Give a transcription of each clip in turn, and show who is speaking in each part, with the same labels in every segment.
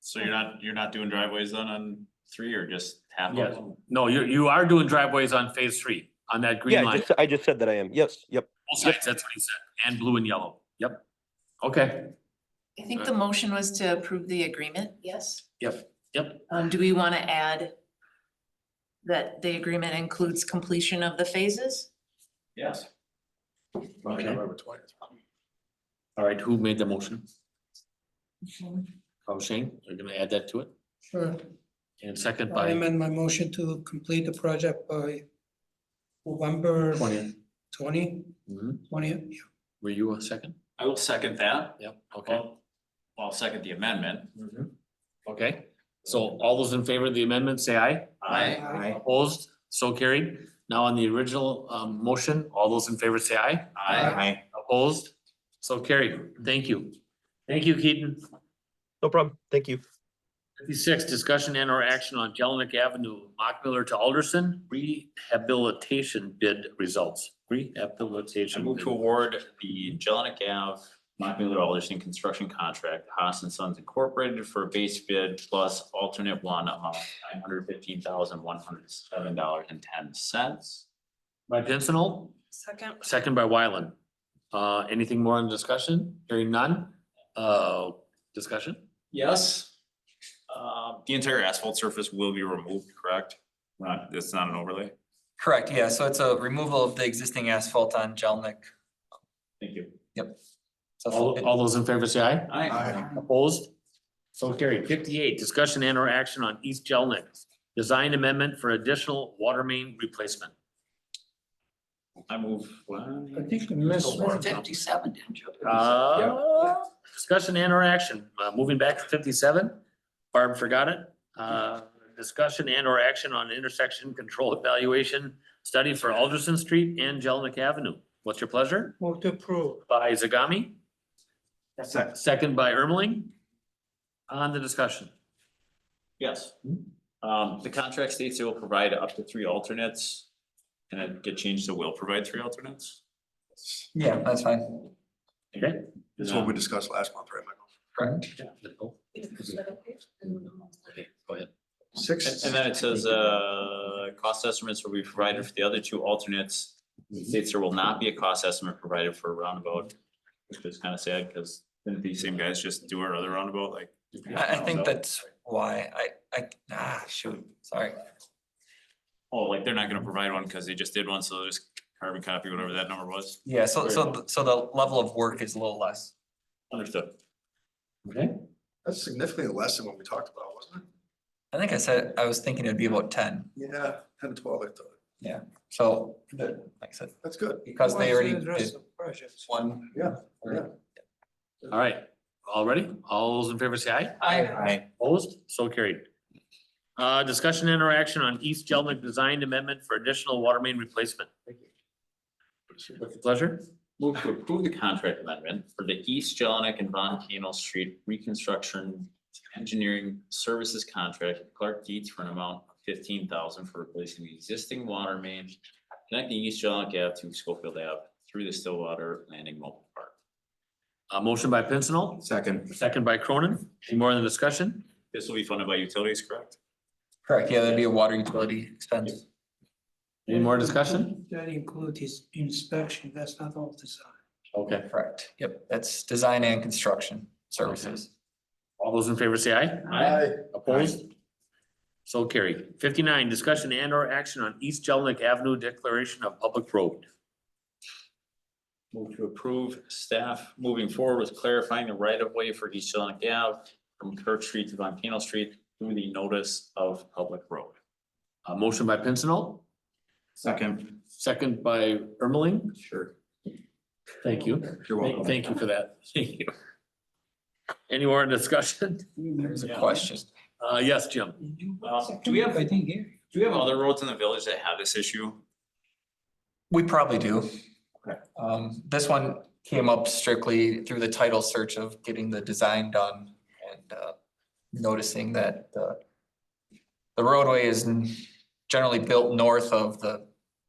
Speaker 1: So you're not, you're not doing driveways then on three or just half of
Speaker 2: Yes.
Speaker 1: them?
Speaker 2: No, you, you are doing driveways on phase three, on that green
Speaker 3: Yeah, I
Speaker 2: line,
Speaker 3: just, I just said that I am. Yes, yep.
Speaker 2: both sides, that's what he said, and blue and yellow, yep. Okay,
Speaker 4: I think the motion was to approve the agreement, yes?
Speaker 2: Yep, yep.
Speaker 4: Um, do we wanna add that the agreement includes completion of the phases?
Speaker 1: Yes.
Speaker 2: Okay. all right, who made the motion? Oh, Shane, you're gonna add that to it,
Speaker 5: Sure,
Speaker 2: and second
Speaker 5: I
Speaker 2: by
Speaker 5: amend my motion to complete the project by November
Speaker 2: twentieth.
Speaker 5: twenty, twentieth.
Speaker 2: Mm-hmm. Were you a second?
Speaker 1: I will second that.
Speaker 2: Yep, okay.
Speaker 1: Well, I'll second the amendment.
Speaker 2: Mhm. Okay, so all those in favor of the amendment, say aye.
Speaker 1: I,
Speaker 2: Opposed, so carried. Now on the original um motion, all those in favor say aye.
Speaker 1: I,
Speaker 2: Opposed, so carried. Thank you. Thank you, Keaton.
Speaker 3: No problem. Thank you.
Speaker 2: Fifty-six, discussion and or action on Kellenick Avenue, Mockmiller to Alderson, rehabilitation bid results,
Speaker 1: I
Speaker 2: rehabilitation.
Speaker 1: move to
Speaker 2: bid.
Speaker 1: award the Jelinek Ave Montpelier Alderson Construction Contract, to Haas and Sons Incorporated for a base bid plus alternate one amount nine hundred fifteen thousand one hundred seven dollars and ten cents.
Speaker 2: By Pincinel,
Speaker 4: Second.
Speaker 2: second by Wyland. Uh, anything more on discussion? Hearing none? Uh, discussion?
Speaker 1: Yes. Uh, the entire asphalt surface will be removed, correct? Not, it's not an overlay.
Speaker 6: Correct, yeah, so it's a removal of the existing asphalt on Jelnik.
Speaker 1: Thank you.
Speaker 6: So
Speaker 2: All,
Speaker 6: it-
Speaker 2: all those in favor say aye.
Speaker 1: I,
Speaker 2: Opposed? So carried. Fifty-eight, discussion and or action on East Jelnik, design amendment for additional water main replacement.
Speaker 1: I move.
Speaker 5: I
Speaker 1: one.
Speaker 5: think you missed one.
Speaker 4: Fifty-seven, didn't you?
Speaker 2: Uh, discussion and or action, uh, moving back to fifty-seven, Barb forgot it. Uh, discussion and or action on intersection control evaluation study for Alderson Street and Jelnik Avenue. What's your pleasure?
Speaker 5: Move to approve.
Speaker 2: By Zagami?
Speaker 1: Second.
Speaker 2: Second by Ermeling? On the discussion.
Speaker 1: Yes. Um, the contract states it will provide up to three alternates. Can it get changed to will provide three alternates?
Speaker 6: Yeah, that's fine.
Speaker 2: Okay.
Speaker 7: That's what we discussed last month, right, Michael?
Speaker 2: Go ahead.
Speaker 7: Six.
Speaker 1: And then it says, uh, cost estimates will be provided for the other two alternates. It States there will not be a cost estimate provided for a roundabout, which is kind of sad because didn't these same guys just do our other roundabout like?
Speaker 6: I, I think that's why I, I, ah, shoot, sorry.
Speaker 1: Oh, like they're not gonna provide one because they just did one, so they'll just carbon copy whatever that number was.
Speaker 6: Yeah, so, so, th- so the level of work is a little less.
Speaker 1: Understood.
Speaker 2: Okay,
Speaker 7: That's significantly less than what we talked about, wasn't
Speaker 6: I think I said, I was thinking it'd be about ten,
Speaker 7: it? Yeah, ten to twelve, I thought.
Speaker 6: so, the- like I said,
Speaker 7: That's good.
Speaker 6: because they already
Speaker 5: Wasn't addressed
Speaker 6: did
Speaker 5: the project.
Speaker 6: one.
Speaker 7: Yeah,
Speaker 6: or-
Speaker 7: yeah.
Speaker 2: all right, all ready? All those in favor say aye.
Speaker 6: Aye.
Speaker 2: Opposed, so carried. Uh, discussion and interaction on East Jelmac Design Amendment for additional water main replacement. With pleasure.
Speaker 1: Move to approve the contract amendment for the East Jelinek and Von Canal Street Reconstruction Engineering Services Contract with Clark Dietz for an amount of fifteen thousand for replacing the existing water main connecting East Jelinek Ave to Schofield Ave through the Stillwater Landing Mobile Park.
Speaker 2: A Uh, motion by Pincinel,
Speaker 1: Second.
Speaker 2: second by Cronin. Any more in the discussion?
Speaker 1: This will be funded by utilities, correct?
Speaker 6: Correct, yeah, that'd be a water utility expense.
Speaker 2: Any more discussion?
Speaker 5: That includes his inspection, that's not all design.
Speaker 2: Okay,
Speaker 6: Correct, yep, that's design and construction services.
Speaker 2: all those in favor say aye.
Speaker 7: Aye.
Speaker 2: Opposed? So carried. Fifty-nine, discussion and or action on East Jelmac Avenue Declaration of Public Road.
Speaker 1: Move to approve staff moving forward with clarifying the right of way for East Jelinek Ave from Kirk Street to Von Canal Street through the notice of public road.
Speaker 2: A motion by Pincinel,
Speaker 1: Second.
Speaker 2: second by Ermeling.
Speaker 1: Sure.
Speaker 2: Thank you.
Speaker 7: You're
Speaker 2: Thank-
Speaker 7: welcome.
Speaker 2: Thank you for that. Thank you. Any more discussion?
Speaker 6: There's a
Speaker 1: Yeah.
Speaker 6: question.
Speaker 2: Uh, yes, Jim.
Speaker 1: Um, do we have-
Speaker 5: I think here.
Speaker 1: Do we have other roads in the village that have this issue?
Speaker 6: We probably do.
Speaker 1: Okay.
Speaker 6: Um, this one came up strictly through the title search of getting the design done and, uh, noticing that the the roadway is n- generally built north of the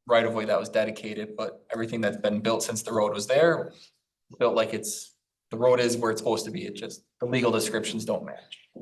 Speaker 6: right of way that was dedicated, but everything that's been built since the road was there built like it's, the road is where it's supposed to be. It just, the legal descriptions don't match.